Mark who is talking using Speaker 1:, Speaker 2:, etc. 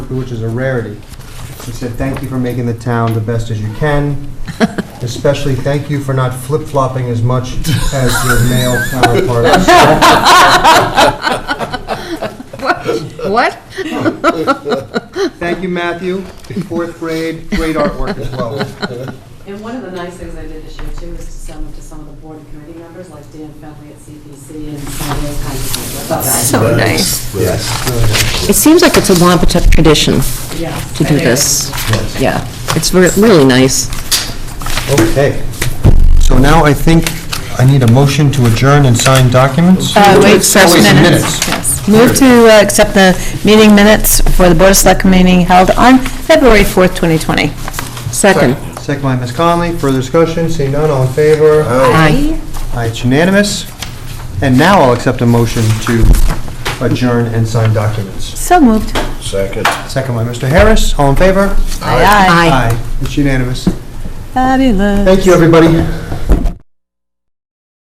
Speaker 1: which is a rarity. He said, "Thank you for making the town the best as you can. Especially thank you for not flip-flopping as much as your male counterparts."
Speaker 2: What?
Speaker 1: Thank you, Matthew. Fourth grade, great artwork as well.
Speaker 3: And one of the nice things I did this year too is to send them to some of the board and committee members, like Dan Fenley at CPC and some of those kinds of people. I thought that-
Speaker 2: So nice.
Speaker 4: Yes.
Speaker 2: It seems like it's a Wampatuck tradition
Speaker 3: Yeah.
Speaker 2: to do
Speaker 3: It is.
Speaker 2: this. Yeah, it's re- really nice.
Speaker 1: Okay. So now I think I need a motion to adjourn and sign documents?
Speaker 2: Uh,
Speaker 5: wait,
Speaker 1: Oh, wait,
Speaker 5: first
Speaker 1: some
Speaker 5: minutes. Yes. Move to uh, accept the meeting minutes for the Board of Select meeting held on February 4th, 2020.
Speaker 2: Second.
Speaker 1: Second by Ms. Conley, further discussion, seeing none, all in favor?
Speaker 2: Aye.
Speaker 1: Aye, it's unanimous. And now I'll accept a motion to adjourn and sign documents.
Speaker 5: So moved.
Speaker 4: Second.
Speaker 1: Second by Mr. Harris, all in favor?
Speaker 5: Aye.
Speaker 1: It's unanimous.
Speaker 5: Fabulous.
Speaker 1: Thank you, everybody.